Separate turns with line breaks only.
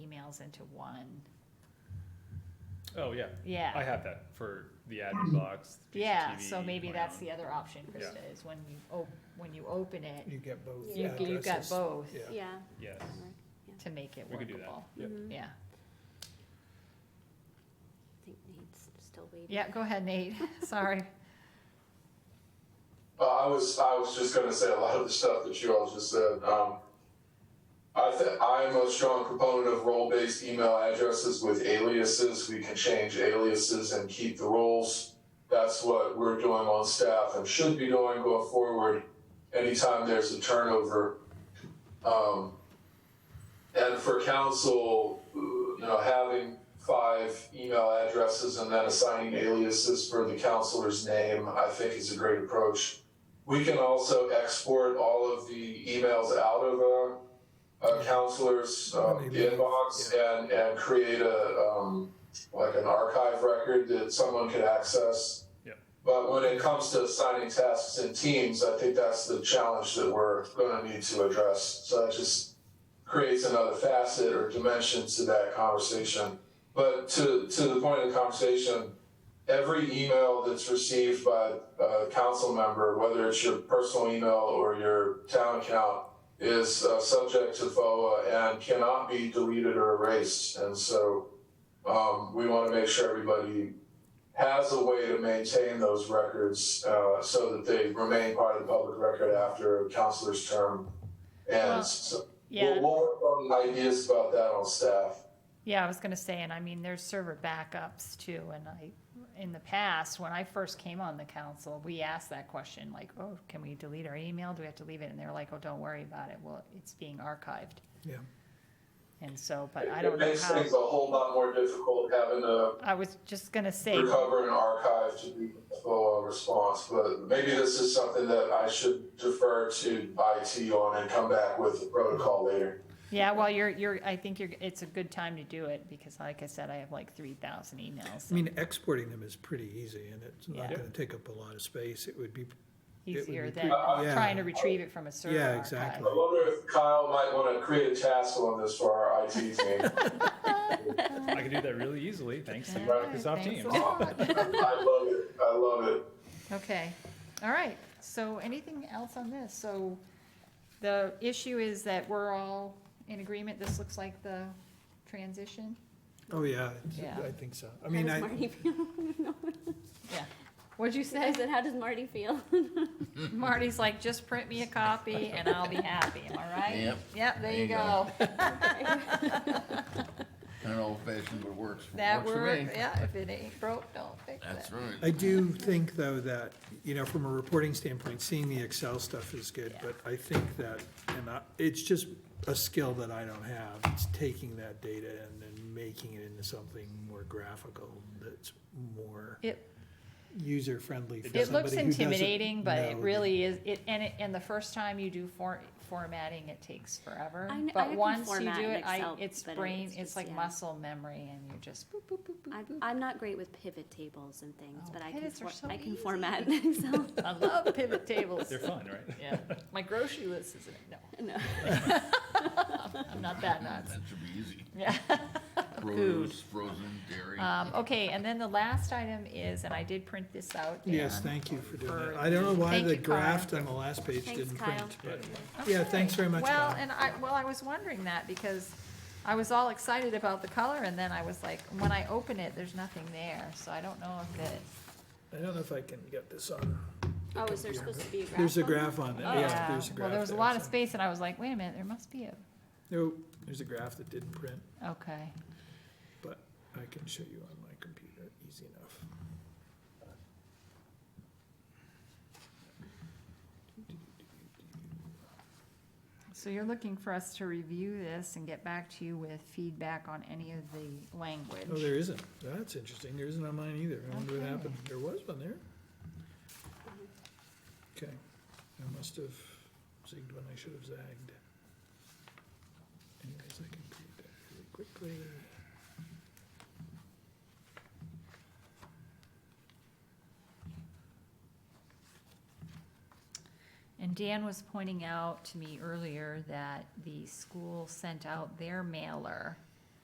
channels into one.
Oh, yeah. I
Yeah,
have that for the admin box. the
Mm-hmm. yeah,
PCTV,
so maybe
my
that's
own.
the other option, Krista, is when you op, when you open it,
You get both
you,
Yeah.
you've got
addresses.
both
Yeah.
Yeah.
Yes,
to make it
we could do that.
workable.
Yep.
mhm.
Yeah,
I think Nate's still waiting.
yeah, go ahead, Nate, sorry.
Uh, I was I was just going to say a lot of the stuff that you all just said. Um, I th- I'm a strong proponent of role-based email addresses with aliases. We can change aliases and keep the roles. That's what we're doing on staff and should be doing going forward. Anytime there's a turnover, um, and for council, you know, having five email addresses and then assigning aliases for the counselor's name, I think is a great approach. We can also export all of the emails out of a, a counselor's um, inbox and, and create a, um, like an archive record that someone could access.
Yep.
But when it comes to assigning tasks in teams, I think that's the challenge that we're gonna need to address. So I just creates another facet or dimension to that conversation. But to, to the point of the conversation, every email that's received by a council member, whether it's your personal email or your town account, is uh, subject to FOA and cannot be deleted or erased. And so um, we want to make sure everybody has a way to maintain those records uh, so that they remain part of the public record after a counselor's term. And
Well,
so
Yeah,
We'll, we'll work on ideas about that on staff.
Yeah, I was gonna say, and I mean, there's server backups too, and I, in the past, when I first came on the council, we asked that question, like, oh, can we delete our email? Do we have to leave it? And they were like, oh, don't worry about it. Well, it's being archived.
Yeah.
And so, but I don't
It
know
makes
how,
things a whole lot more difficult having to
I was just gonna say,
recover an archive to be a full response, but maybe this is something that I should defer to IT on and come back with the protocol later.
yeah, well, you're, you're, I think you're, it's a good time to do it, because like I said, I have like three thousand emails.
I mean, exporting them is pretty easy and it's not
Yeah.
gonna take up a lot of space. It would be, it would
Easier
be
than
pretty-
trying to
yeah.
retrieve it from a server
Yeah,
archive.
exactly.
I wonder if Kyle might want to create a task on this for our IT team.
I can do that really easily, thanks to
Yeah,
Microsoft
thanks a
Teams.
lot.
I love it, I love it.
Okay, all right, so anything else on this? So the issue is that we're all in agreement, this looks like the transition?
oh, yeah, it's-
Yeah.
I think so. I
How
mean,
does
I,
Marty feel? No.
Yeah. What'd you
I
say?
said, how does Marty feel?
Marty's like, just print me a copy and I'll be happy, am I right?
Yep.
Yep, there you go.
Kind of old fashioned, but works,
That
works for me.
work, yeah, if it ain't broke, don't fix it.
That's right.
I do think though that, you know, from a reporting standpoint, seeing the Excel stuff is good, but I think that, and I, it's just a skill that I don't have. It's taking that data and then making it into something more graphical that's more
It,
user friendly for somebody
it looks
who doesn't
intimidating, but it
know the-
really is, it, and it, and the first time you do for, formatting, it takes forever.
I kn- I
But
can
once you do
format in
it, I,
Excel,
it's
but
brain,
it's
it's
just-
like
yeah.
muscle memory and you're just boop, boop, boop, boop.
I'm, I'm not great with pivot tables and things,
Oh,
but I can,
pivots are
for-
so
I can
easy.
format in Excel.
I love pivot tables.
They're fun, right?
Yeah, my grocery list is in it. No,
No.
I'm not that
That
nuts.
should be easy.
Yeah.
Produce, frozen, dairy.
Um, okay, and then the last item is, and I did print this out.
Yes,
Dan.
thank you for doing
for
that. I don't know why
Thank
the
you, Kyle.
graft on the last page
Thanks,
didn't
Kyle.
print, but,
Okay.
yeah, thanks very much,
Well,
Kyle.
and I, well, I was wondering that because I was all excited about the color and then I was like, when I open it, there's nothing there, so I don't know if it.
I don't know if I can get this on.
Oh, is there supposed to be a graph?
There's a
on
graph on it, Oh, yeah, there's a graph
Oh, Well, there was a
there,
lot of
so-
space and I was like, wait a minute, there must be a,
Nope, there's a graph that didn't print,
okay.
but I can show you on my computer, easy enough.
So you're looking for us to review this and get back to you with feedback on any of the language?
Oh, there isn't. That's interesting. There isn't on mine either. I wonder what happened. There was one there. Okay, I must have zigged when I should have zagged. Anyways, I can create that really quickly.
And Dan was pointing out to me earlier that the school sent out their mailer